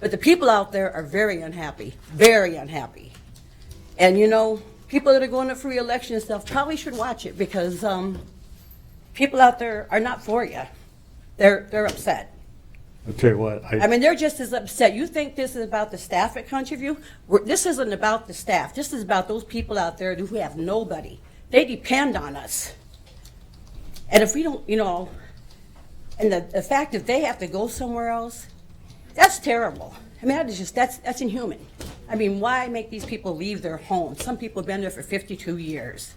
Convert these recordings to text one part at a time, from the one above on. But the people out there are very unhappy, very unhappy. And you know, people that are going up for reelection and stuff probably should watch it because um, people out there are not for you. They're, they're upset. I'll tell you what, I I, mean, they're just as upset. You think this is about the staff at Country View? We're- This isn't about the staff. This is about those people out there who have nobody. They depend on us. And if we don't, you know, and the, the fact that they have to go somewhere else, that's terrible. I mean, that is just, that's, that's inhuman. I mean, why make these people leave their homes? Some people have been there for 52 years.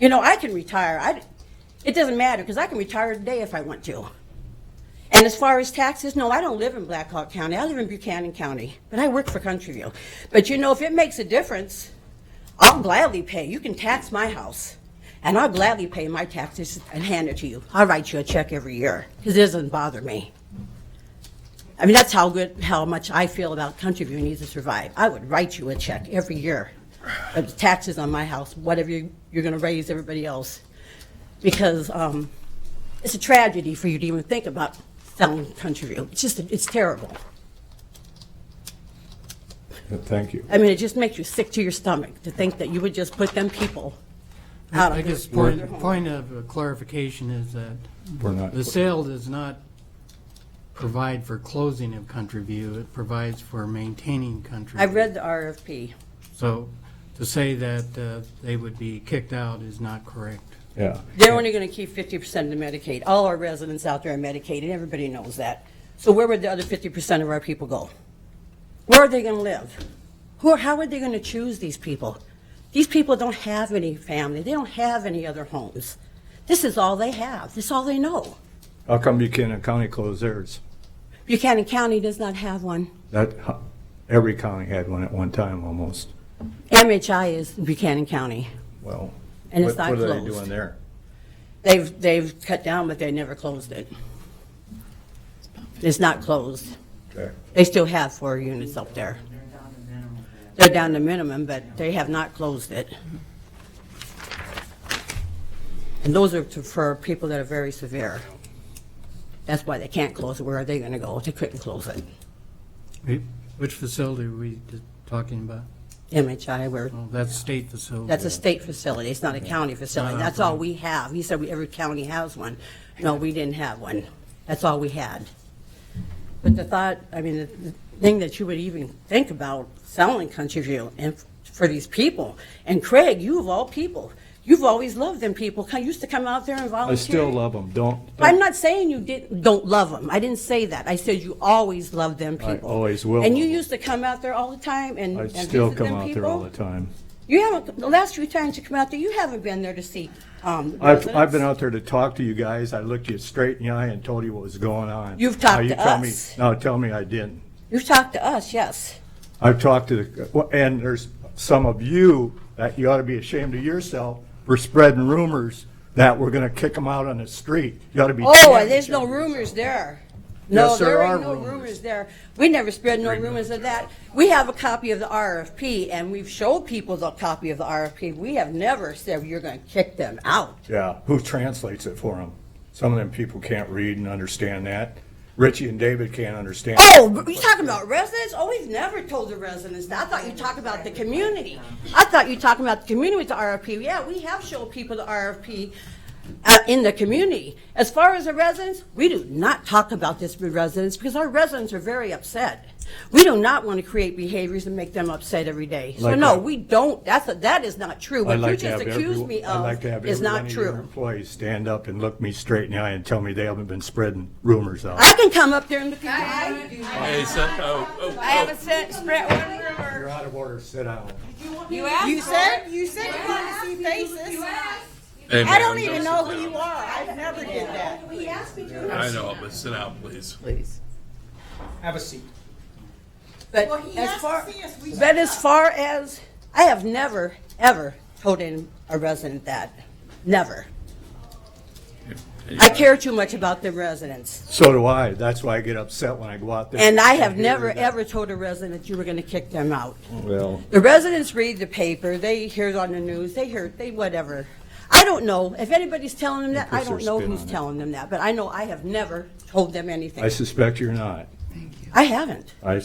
You know, I can retire. I, it doesn't matter because I can retire today if I want to. And as far as taxes, no, I don't live in Black Hawk County. I live in Buchanan County, but I work for Country View. But you know, if it makes a difference, I'll gladly pay. You can tax my house, and I'll gladly pay my taxes and hand it to you. I'll write you a check every year because it doesn't bother me. I mean, that's how good, how much I feel about Country View needs to survive. I would write you a check every year of the taxes on my house, whatever you, you're going to raise everybody else, because um, it's a tragedy for you to even think about selling Country View. It's just, it's terrible. thank you. I mean, it just makes you sick to your stomach to think that you would just put them people out I of guess their- their point, home. point of uh, clarification is that We're not- the sale does not provide for closing of Country View, it provides for maintaining Country. I View. read the RFP. So to say that uh, they would be kicked out is not correct. Yeah. They're only going to keep fifty percent of Medicaid. All our residents out there are Medicaid, and everybody knows that. So where would the other fifty percent of our people go? Where are they going to live? Who, are- how are they going to choose these people? These people don't have any family. They don't have any other homes. This is all they have. This is all they know. How come Buchanan County closed theirs? Buchanan County does not have one. That, every county had one at one time almost. MHI is Buchanan County. Well. And it's what- not What are they closed. doing there? They've, they've cut down, but they never closed it. It's not closed. Okay. They still have four units up there. They're down to minimum, but they have not closed it. And those are to- for people that are very severe. That's why they can't close it. Where are they going to go? They couldn't close it. Which facility are we d- talking about? MHI, where, Well, that's state facility. that's a state facility. It's not a county facility. That's all we have. He said we- every county has one. No, we didn't have one. That's all we had. But the thought, I mean, the the thing that you would even think about selling Country View and f- for these people, and Craig, you of all people, you've always loved them people, Co- used to come out there and I still volunteer. love them. Don't. don't- I'm not saying you didn't, don't love them. I didn't say that. I said you always loved them people. always will And you love 'em. used to come out there all the time and I and visit still come them out there all people. the time. You haven't, the last few times you come out there, you haven't been there to see, um, I've, I've been residents. out there to talk to you guys. I looked you straight in the eye and told you what was going on. You've talked Now you to tell me- us. Now tell me I didn't. You've talked to us, yes. I've talked to, the well, and there's some of you that you ought to be ashamed of yourself for spreading rumors that we're gonna kick them out on the street. You ought to be. Oh, damned there's no ashamed of yourself. rumors there. Yes, No, there there are are no rumors. rumors there. We never spread no rumors of that. We have a copy of the RFP, and we've showed people the copy of the RFP. We have never said you're gonna kick them out. Yeah, who translates it for them? Some of them people can't read and understand that. Richie and David can't understand. Oh, you talking about residents? Oh, we've never told the residents that. I thought you talked about the community. I thought you talking about the community with the RFP. Yeah, we have showed people the RFP uh, in the community. As far as the residents, we do not talk about this with residents because our residents are very upset. We do not want to create behaviors and make them upset every day. So Like no, that. we don't. That's, a- that is not true. I'd What you like to just have accused me every, I'd like of to have is every one not of your true. employees stand up and look me straight in the eye and tell me they haven't been spreading rumors out. I can come up there and look at you. Hey, so, oh, oh, I haven't sent, spread one rumor. You're out of order, sit down. You asked. You said, you said you wanted to see faces. oh. hey, I ma'am, don't even sit know who down. you are. I've never did that. I know, but sit down, please. Have a seat. But Well, he as has to far, see us, we but as far as, I have never, ever told in a resident that, never. I care too much about the residents, So do I, that's why I get upset when I go out there. and I have hear never, that. ever told a resident you were gonna kick them out. Well, The residents read the paper, they hear it on the news, they hear, they whatever. I don't know, if anybody's telling them that, I puts their don't know spin who's on it. telling them that, but I know I have never told them I anything. suspect you're not. I haven't. I